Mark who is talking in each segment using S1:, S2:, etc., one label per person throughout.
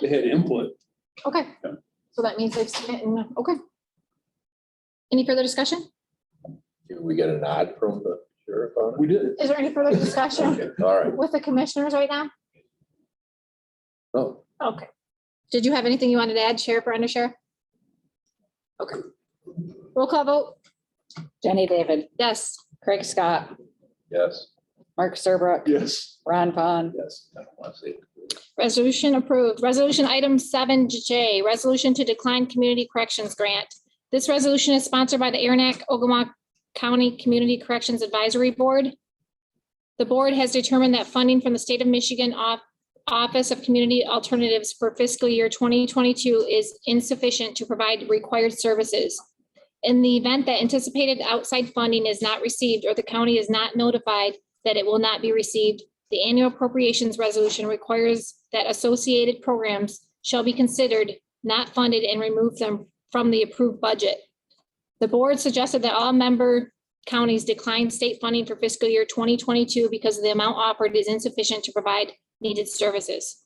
S1: They had input.
S2: Okay,
S1: Yeah.
S2: so that means they've seen it and, okay. Any further discussion?
S3: Did we get a nod from the sheriff on
S1: We did.
S2: Is there any further
S3: it?
S2: discussion
S3: Okay, All right,
S2: with the commissioners right now?
S3: oh,
S2: Okay. Did you have anything you wanted to add, Sheriff or Undersheriff? Okay. Roll call vote,
S4: Jenny David,
S2: yes.
S4: Craig Scott,
S3: yes,
S4: Mark Serbrook,
S1: Yes.
S4: Ron Vaughn,
S3: yes, I don't want to say.
S2: Resolution approved. Resolution item seven J, resolution to decline community corrections grant. This resolution is sponsored by the Aranac Ogama County Community Corrections Advisory Board. The board has determined that funding from the state of Michigan Off- Office of Community Alternatives for fiscal year twenty twenty-two is insufficient to provide required services. In the event that anticipated outside funding is not received or the county is not notified that it will not be received, the annual appropriations resolution requires that associated programs shall be considered not funded and remove them from the approved budget. The board suggested that all member counties decline state funding for fiscal year twenty twenty-two because the amount offered is insufficient to provide needed services.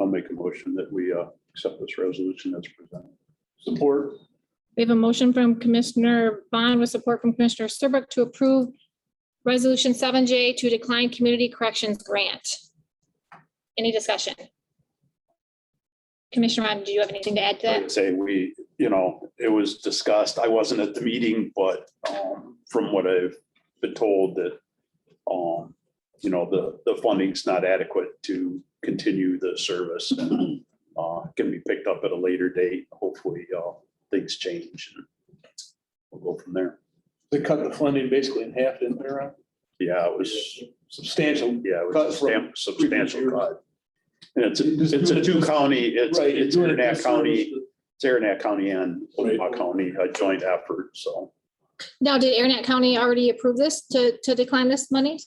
S1: I'll make a motion that we uh, accept this resolution that's presented. Support.
S2: We have a motion from Commissioner Bond with support from Commissioner Serbrook to approve Resolution seven J to decline community corrections grant. Any discussion? Commissioner Ron, do you have anything to add to
S1: I
S2: that?
S1: would say we, you know, it was discussed. I wasn't at the meeting, but um, from what I've been told that um, you know, the, the funding's not adequate to continue the service and uh, can be picked up at a later date. Hopefully, uh, things change and we'll go from there.
S5: They cut the funding basically in half, didn't they, Ron?
S1: Yeah, it was,
S5: Substantial.
S1: yeah, it
S5: Cut
S1: was a
S5: from
S1: stam- substantial
S5: previous year.
S1: cut. And it's,
S5: You just
S1: a- it's a
S5: do it
S1: two
S5: this-
S1: county, it's,
S5: Right,
S1: it's
S5: you're doing
S1: Aranac
S5: it
S1: County,
S5: service.
S1: it's Aranac County and Omaha
S5: Right.
S1: County, a joint effort, so.
S2: Now, did Aranet County already approve this to, to decline this money?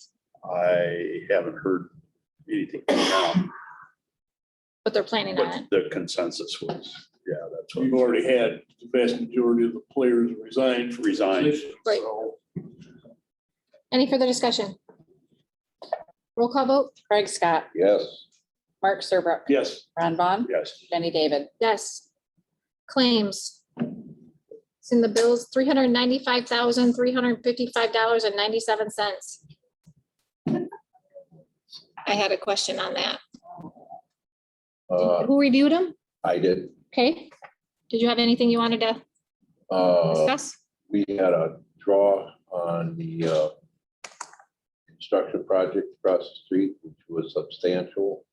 S1: I haven't heard anything, from them,
S2: But they're planning on
S1: but
S2: it.
S1: the consensus was, yeah, that's
S5: We've
S1: what
S5: already had the vast majority of the players resign. from
S1: resigned.
S5: position,
S2: Right.
S5: so
S2: Any further discussion? Roll call vote?
S4: Craig Scott,
S3: Yes,
S4: Mark Serbrook,
S5: Yes,
S4: Ron Vaughn,
S1: Yes,
S4: Jenny David,
S2: Yes. Claims. It's in the bills, three hundred ninety-five thousand, three hundred fifty-five dollars and ninety-seven cents. I had a question on that.
S3: uh,
S2: Who reviewed them?
S3: I did,
S2: Okay. Did you have anything you wanted to
S3: uh,
S2: discuss?
S3: we had a draw on the, uh, construction project across the street, which was substantial.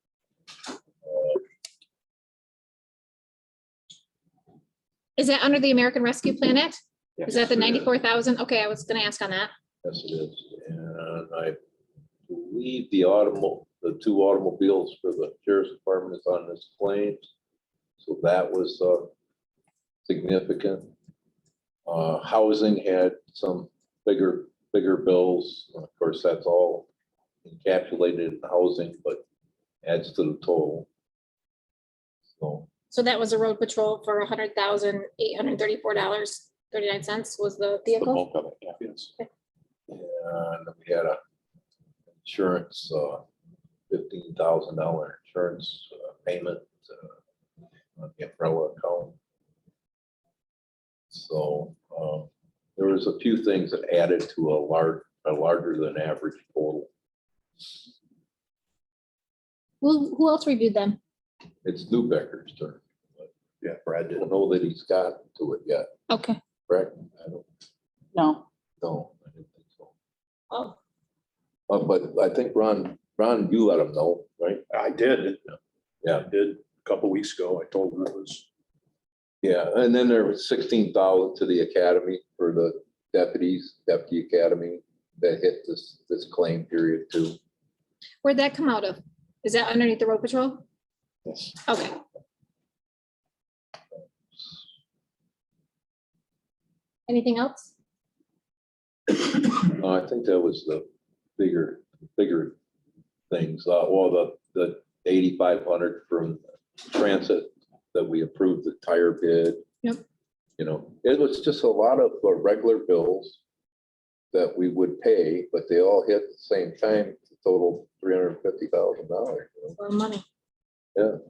S2: Is that under the American Rescue Plan Act? Is that the
S3: Yes, it
S2: ninety-four thousand? Okay, I was gonna ask on that.
S3: Yes, it is, and I believe the automobile, the two automobiles for the sheriff's department is on this claim. So that was uh, significant. Uh, Housing had some bigger, bigger bills, of course, that's all encapsulated in housing, but adds to the total. So,
S2: So that was a road patrol for hundred thousand, eight hundred thirty-four dollars, thirty-nine cents was the
S1: the
S2: vehicle.
S1: bulk of it, yeah.
S5: yes.
S3: and we had a insurance, uh, fifteen thousand dollar insurance uh, payment uh, on the umbrella account. So um, there was a few things that added to a large, a larger than average total.
S2: Who, who else reviewed them?
S3: It's Newbecker's turn.
S1: Yeah, Brad
S3: I
S1: did.
S3: don't know that he's gotten to it yet,
S2: Okay.
S3: correct? I don't
S4: no,
S3: know. I didn't think so.
S2: Oh,
S3: Uh, But I think Ron, Ron, you let him know, right?
S1: I did.
S3: Yeah.
S1: I Did a couple weeks ago. I told him it was,
S3: Yeah, and then there was sixteen thousand to the academy for the deputies, deputy academy that hit this, this claim period too.
S2: where'd that come out of? Is that underneath the road patrol?
S3: Yes.
S2: Okay, anything else?
S3: Uh, I think that was the bigger, bigger things. Uh, well, the, the eighty-five hundred from transit that we approved the tire bid.
S2: Yep.
S3: You know, it was just a lot of uh, regular bills that we would pay, but they all hit at the same time, total three hundred and fifty thousand dollars.
S2: Or money?